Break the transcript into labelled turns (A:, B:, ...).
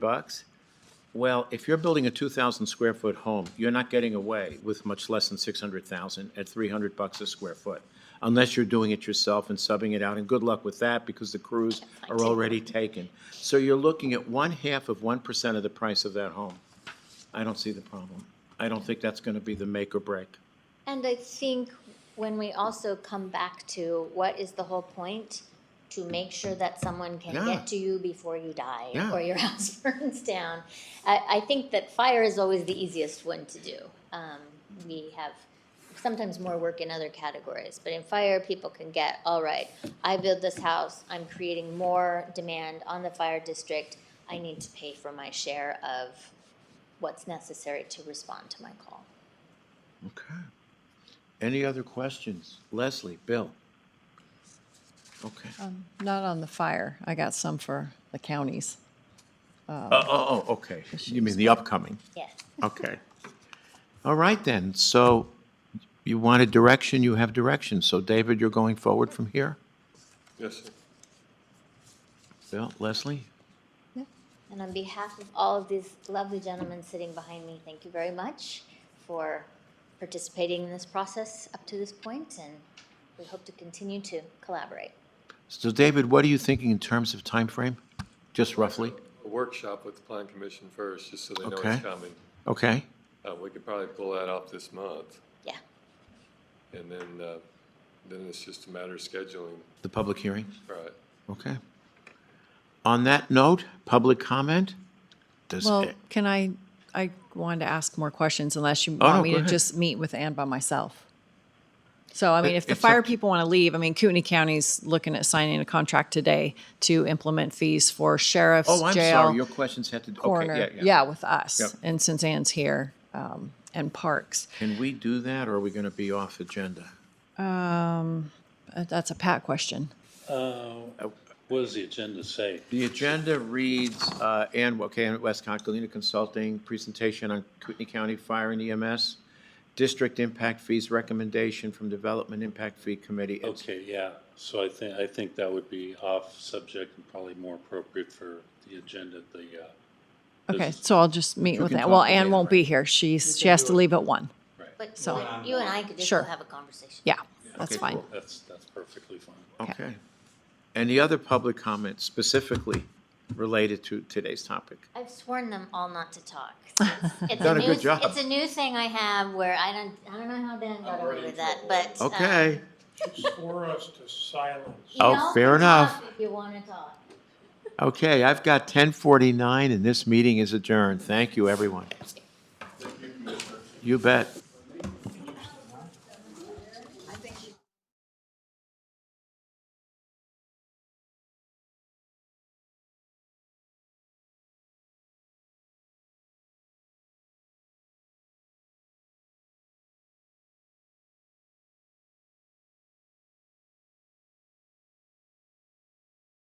A: bucks? Well, if you're building a two thousand square foot home, you're not getting away with much less than six hundred thousand at three hundred bucks a square foot. Unless you're doing it yourself and subbing it out, and good luck with that because the crews are already taken. So you're looking at one half of one percent of the price of that home. I don't see the problem. I don't think that's gonna be the make or break.
B: And I think when we also come back to what is the whole point? To make sure that someone can
A: Yeah.
B: get to you before you die
A: Yeah.
B: or your house burns down. I, I think that fire is always the easiest one to do. Um, we have sometimes more work in other categories, but in fire, people can get, all right, I build this house, I'm creating more demand on the fire district. I need to pay for my share of what's necessary to respond to my call.
A: Okay. Any other questions? Leslie, Bill? Okay.
C: Um, Not on the fire. I got some for the counties.
A: Oh, oh, oh, okay. You mean the upcoming?
B: Yes.
A: Okay. All right then, so you wanted direction, you have direction. So David, you're going forward from here?
D: Yes, sir.
A: Bill, Leslie?
B: And on behalf of all of these lovely gentlemen sitting behind me, thank you very much for participating in this process up to this point, and we hope to continue to collaborate.
A: So David, what are you thinking in terms of time frame? Just roughly?
D: A workshop with the plan commission first, just so they know
A: Okay.
D: it's coming.
A: Okay,
D: Uh, we could probably pull that off this month,
B: Yeah,
D: and then, uh, then it's just a matter of scheduling,
A: the public hearing,
D: right?
A: okay. On that note, public comment? Does,
C: Well, can I, I wanted to ask more questions unless you
A: Oh, no,
C: want me
A: go
C: to
A: ahead.
C: just meet with Ann by myself. So, I
A: It-
C: mean, if the
A: it's up
C: fire
A: to-
C: people want to leave, I mean, Kootenai County's looking at signing a contract today to implement fees for sheriffs,
A: oh, I'm sorry, your
C: jail,
A: questions had to, okay, yeah,
C: coroner.
A: yeah.
C: Yeah, with us.
A: Yep.
C: And since Ann's here, um, and parks.
A: Can we do that, or are we going to be off agenda?
C: Uh, That's a Pat question.
E: Uh, What does the agenda say?
A: The agenda reads, uh, Ann, okay, Ann Westcott, Galena Consulting, presentation on Kootenai County Fire and EMS, district impact fees recommendation from Development Impact Fee Committee. It's-
E: Okay, yeah, so I think, I think that would be off subject and probably more appropriate for the agenda, at the, uh,
C: Okay, so I'll just meet
A: You
C: with
A: can
C: Ann. Well,
A: talk to
C: Ann
A: Ann,
C: won't
A: right.
C: be here. She's, she has to leave at one.
E: right,
B: but
C: So-
B: you and- you and I could just
C: Sure.
B: go have a conversation.
C: Yeah, that's fine.
E: that's, that's perfectly fine.
A: Okay. Any other public comments specifically related to today's topic?
B: I've sworn them all not to talk. so it's- it's
A: Done a
B: new-
A: good job.
B: It's a new thing I have where I don't, I don't know how Dan got away with that, but. um,
A: Okay,
F: for us to silence.
B: you
A: Oh,
B: all
A: fair
B: can
A: enough.
B: talk If you want to talk.
A: okay, I've got ten forty-nine, and this meeting is adjourned. Thank you, everyone. You bet.